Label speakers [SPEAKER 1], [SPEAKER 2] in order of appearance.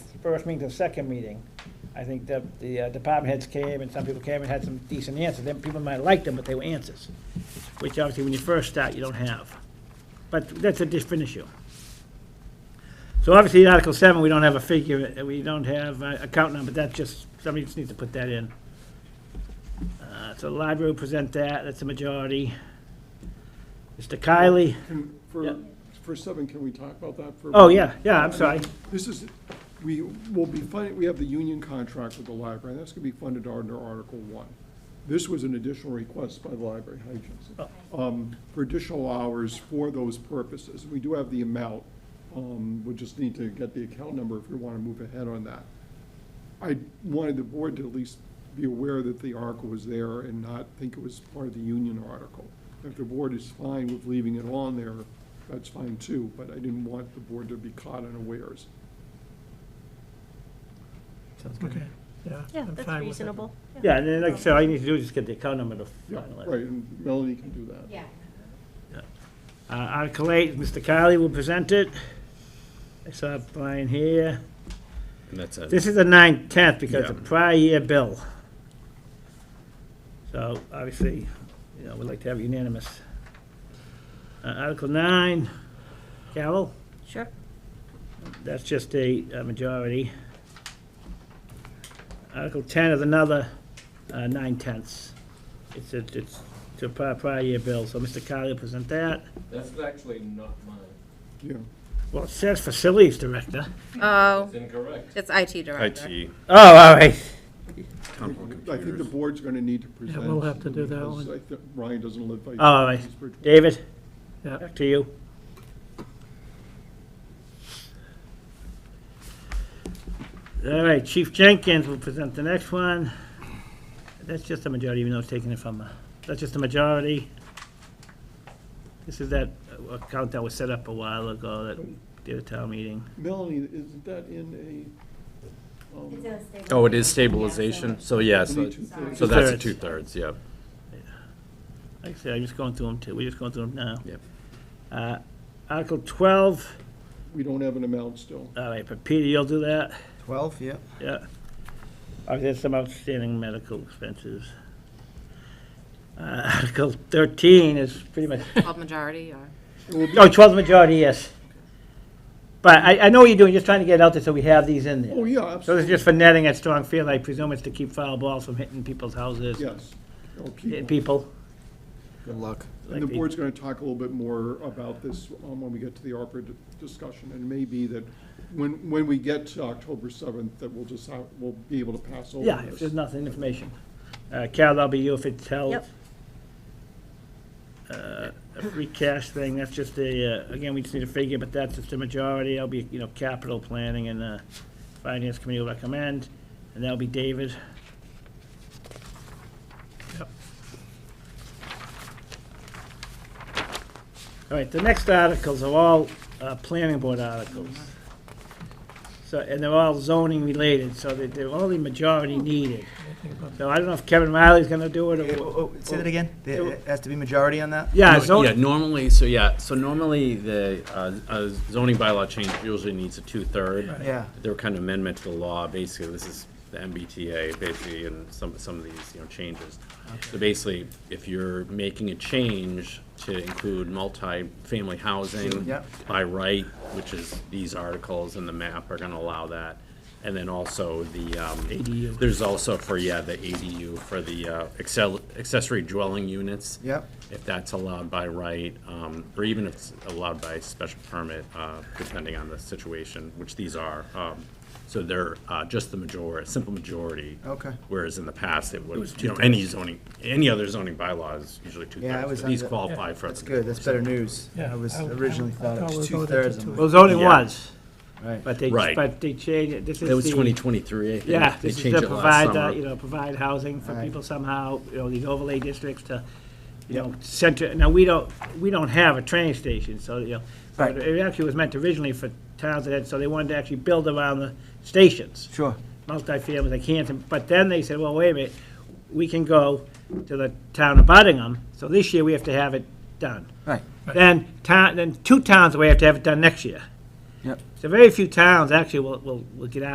[SPEAKER 1] first meeting to the second meeting, I think that the uh, department heads came and some people came and had some decent answers. Then people might like them, but they were answers, which obviously when you first start, you don't have. But that's a different issue. So obviously, in Article seven, we don't have a figure, uh, we don't have a account number, that's just, somebody just needs to put that in. Uh, So the library will present that, that's the majority. Mr. Kylie,
[SPEAKER 2] Can,
[SPEAKER 1] Yeah.
[SPEAKER 2] for, for seven, can we talk about that for? a
[SPEAKER 1] oh,
[SPEAKER 2] moment?
[SPEAKER 1] yeah, yeah, I'm sorry.
[SPEAKER 2] This is, we will be funding, we have the union contract with the library, and that's gonna be funded under Article One. This was an additional request by the library, hi, Jason, um, for additional hours for those purposes. We do have the amount, um, we just need to get the account number if we wanna move ahead on that. I wanted the board to at least be aware that the article was there and not think it was part of the union article. If the board is fine with leaving it on there, that's fine too, but I didn't want the board to be caught unawares.
[SPEAKER 3] Sounds good. Yeah.
[SPEAKER 4] Yeah,
[SPEAKER 3] I'm
[SPEAKER 4] that's
[SPEAKER 3] fine with it.
[SPEAKER 4] reasonable.
[SPEAKER 1] Yeah, and then, like I said, all you need to do is just get the account number to
[SPEAKER 2] Yeah,
[SPEAKER 1] finalize.
[SPEAKER 2] right, and Melanie can do that.
[SPEAKER 5] Yeah.
[SPEAKER 1] Uh, Article eight, Mr. Kylie will present it. I saw Brian here.
[SPEAKER 6] And that's a,
[SPEAKER 1] This is the nine tenth because the
[SPEAKER 6] Yeah.
[SPEAKER 1] prior year bill. So obviously, you know, we'd like to have unanimous. Uh, Article nine, Carol,
[SPEAKER 4] Sure.
[SPEAKER 1] that's just a uh, majority. Article ten is another uh, nine tenths. It's, a- it's to prior, prior year bill, so Mr. Carly will present that.
[SPEAKER 7] That's actually not mine.
[SPEAKER 2] Yeah,
[SPEAKER 1] Well, it says facilities director.
[SPEAKER 4] Oh,
[SPEAKER 7] It's incorrect.
[SPEAKER 4] it's IT director.
[SPEAKER 6] IT,
[SPEAKER 1] Oh, all right.
[SPEAKER 6] Temple
[SPEAKER 2] I think the
[SPEAKER 6] Computers.
[SPEAKER 2] board's gonna need to present.
[SPEAKER 3] we'll have to do that
[SPEAKER 2] because
[SPEAKER 3] one.
[SPEAKER 2] I think Ryan doesn't live by.
[SPEAKER 1] All right. David,
[SPEAKER 3] Yeah.
[SPEAKER 1] back to you. All right, Chief Jenkins will present the next one. That's just a majority, even though it's taken it from, uh, that's just a majority. This is that uh, account that was set up a while ago, that did a town meeting.
[SPEAKER 2] Melanie, isn't that in a, um,
[SPEAKER 6] Oh, it is stabilization, so yeah, so,
[SPEAKER 2] Sorry.
[SPEAKER 6] so that's a
[SPEAKER 1] Two-thirds.
[SPEAKER 6] two-thirds, yeah.
[SPEAKER 1] Like I said, I'm just going through them too, we're just going through them now.
[SPEAKER 6] Yep.
[SPEAKER 1] Uh, Article twelve,
[SPEAKER 2] we don't have an amount still.
[SPEAKER 1] all right, but Peter, you'll do that.
[SPEAKER 8] 12, yeah.
[SPEAKER 1] Yeah. I've had some outstanding medical expenses. Uh, Article 13 is pretty much,
[SPEAKER 4] All majority or?
[SPEAKER 2] It will be-
[SPEAKER 1] oh, 12 majority, yes. But I, I know what you're doing, just trying to get it out there so we have these in there.
[SPEAKER 2] Oh, yeah,
[SPEAKER 1] So this is
[SPEAKER 2] absolutely,
[SPEAKER 1] just for netting at strong field, I presume it's to keep foul balls from hitting people's houses,
[SPEAKER 2] yes. Oh,
[SPEAKER 1] eh,
[SPEAKER 2] people.
[SPEAKER 1] people.
[SPEAKER 8] Good luck.
[SPEAKER 2] And
[SPEAKER 1] like
[SPEAKER 2] the
[SPEAKER 1] the-
[SPEAKER 2] board's gonna talk a little bit more about this um, when we get to the ARPA d- discussion, and maybe that when, when we get to October seventh, that we'll just, have- we'll be able to pass over
[SPEAKER 1] Yeah, if there's
[SPEAKER 2] this.
[SPEAKER 1] nothing, information. Uh, Carol, that'll be you if it's held.
[SPEAKER 4] Yep.
[SPEAKER 1] Uh, a free cash thing, that's just a, uh, again, we just need a figure, but that's just a majority, that'll be, you know, capital planning and, uh, finance committee will recommend, and that'll be David. Yep. All right, the next articles are all, uh, planning board articles. So, and they're all zoning related, so they, they're only majority needed. So I don't know if Kevin Riley's gonna do it or.
[SPEAKER 8] oh, Say that again? There has to be majority on that?
[SPEAKER 1] Yeah,
[SPEAKER 6] No, Yeah,
[SPEAKER 1] zoning,
[SPEAKER 6] normally, so yeah, so normally the uh, uh, zoning bylaw change usually needs a two-third.
[SPEAKER 8] Yeah.
[SPEAKER 6] They were kind of amendment to the law, basically, this is the MBTA, basically, and some, some of these, you know, changes. So basically, if you're making a change to include multi-family housing
[SPEAKER 8] Yep.
[SPEAKER 6] by right, which is these articles and the map are gonna allow that, and then also the, um.
[SPEAKER 1] ADU.
[SPEAKER 6] There's also for, yeah, the ADU for the uh, accel- accessory dwelling units
[SPEAKER 8] Yep.
[SPEAKER 6] if that's allowed by right, um, or even if it's allowed by special permit, uh, depending on the situation, which these are. Um, So they're uh, just the majority, simple majority.
[SPEAKER 8] Okay.
[SPEAKER 6] Whereas in the past, it was, you know, any zoning, any other zoning bylaws, usually
[SPEAKER 8] Yeah, I
[SPEAKER 6] two-thirds.
[SPEAKER 8] was
[SPEAKER 6] but These
[SPEAKER 8] under-
[SPEAKER 6] qualify for.
[SPEAKER 8] That's good, that's better news.
[SPEAKER 3] Yeah,
[SPEAKER 8] I was
[SPEAKER 3] I would-
[SPEAKER 8] originally
[SPEAKER 3] I
[SPEAKER 8] thought it
[SPEAKER 3] thought
[SPEAKER 8] was
[SPEAKER 3] we were going to
[SPEAKER 8] two-thirds.
[SPEAKER 3] two.
[SPEAKER 8] I'm
[SPEAKER 1] well,
[SPEAKER 8] like,
[SPEAKER 1] Oh, zoning
[SPEAKER 6] Yeah.
[SPEAKER 1] was,
[SPEAKER 8] Right.
[SPEAKER 1] but they,
[SPEAKER 6] Right.
[SPEAKER 1] but they changed it, this is the.
[SPEAKER 6] It was 2023, I think.
[SPEAKER 1] Yeah,
[SPEAKER 6] They
[SPEAKER 1] this is
[SPEAKER 6] changed
[SPEAKER 1] to
[SPEAKER 6] it last
[SPEAKER 1] provide, uh,
[SPEAKER 6] summer.
[SPEAKER 1] you know, provide housing for
[SPEAKER 8] Right.
[SPEAKER 1] people somehow, you know, these overlay districts to, you know, center, now, we don't, we don't have a train station, so, you know. so
[SPEAKER 8] Right.
[SPEAKER 1] It actually was meant originally for towns that had, so they wanted to actually build around the stations.
[SPEAKER 8] Sure.
[SPEAKER 1] multifamily, they can't, but then they said, well, wait a minute, we can go to the town of Buddingham, so this year we have to have it done.
[SPEAKER 8] Right.
[SPEAKER 1] Then town, then two towns, we have to have it done next year.
[SPEAKER 8] Yep.
[SPEAKER 1] So very few towns actually will, will, will get out.